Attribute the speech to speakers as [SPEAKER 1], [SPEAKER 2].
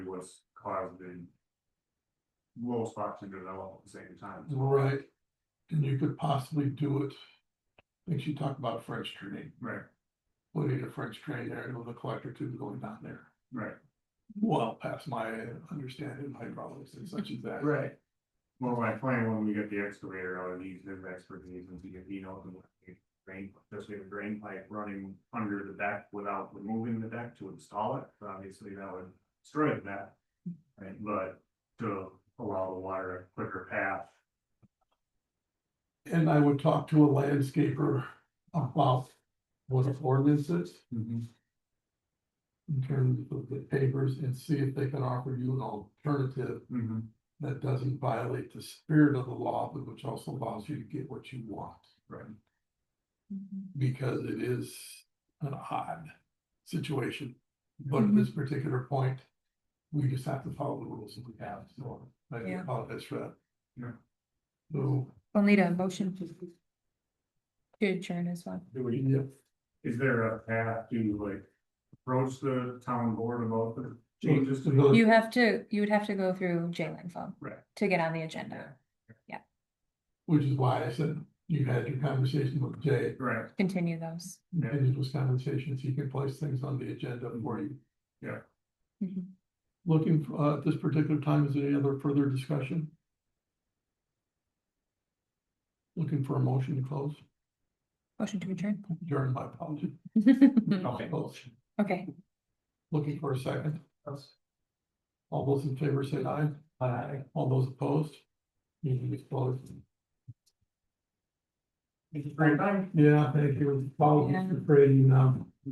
[SPEAKER 1] was caused in. Most parts of develop at the same time.
[SPEAKER 2] Right, and you could possibly do it. I think she talked about French drain,
[SPEAKER 1] Right,
[SPEAKER 2] putting a French drain there and with a collector tube going down there.
[SPEAKER 1] right.
[SPEAKER 2] Well, past my understanding, of hydraulics and such as that.
[SPEAKER 1] Right. Well, my plan when we get the excavator out and use his expertise and to get, he knows and what the drain, just we have a drain pipe running under the deck without removing the deck to install it. Obviously, that would destroy that. Right, but to allow the water a quicker path.
[SPEAKER 2] And I would talk to a landscaper about what an ordinance is in terms of the papers and see if they can offer you an alternative
[SPEAKER 1] Mm-hmm.
[SPEAKER 2] that doesn't violate the spirit of the law, but which also allows you to get what you want.
[SPEAKER 1] Right.
[SPEAKER 2] because it is an odd situation. But at this particular point, we just have to follow the rules that we have, so I do
[SPEAKER 3] Yeah.
[SPEAKER 2] apologize for that.
[SPEAKER 1] Yeah.
[SPEAKER 2] So,
[SPEAKER 3] We'll need a motion to. To adjourn as well.
[SPEAKER 1] Do we,
[SPEAKER 2] yeah,
[SPEAKER 1] is there a path to like approach the town board about the changes to
[SPEAKER 2] The village-
[SPEAKER 1] the?
[SPEAKER 3] You have to, you would have to go through Jalen phone.
[SPEAKER 1] Right.
[SPEAKER 3] To get on the agenda,
[SPEAKER 2] which is why I said you had your conversation with Jay.
[SPEAKER 1] Right,
[SPEAKER 3] continue those.
[SPEAKER 2] Continue those conversations, he can place things on the agenda for you.
[SPEAKER 1] Yeah.
[SPEAKER 3] Mhm.
[SPEAKER 2] Looking, for- uh, at this particular time, is there any other further discussion? Looking for a motion to close,
[SPEAKER 3] Motion to adjourn.
[SPEAKER 2] during my apology.
[SPEAKER 1] okay.
[SPEAKER 2] Close.
[SPEAKER 3] Okay,
[SPEAKER 2] Looking for a second? All those in favor say aye. Aye. All those opposed? Meeting is closed.
[SPEAKER 1] Great, bye.
[SPEAKER 2] Yeah, thank you. Follow
[SPEAKER 3] Yeah.
[SPEAKER 2] Mr. Brady now.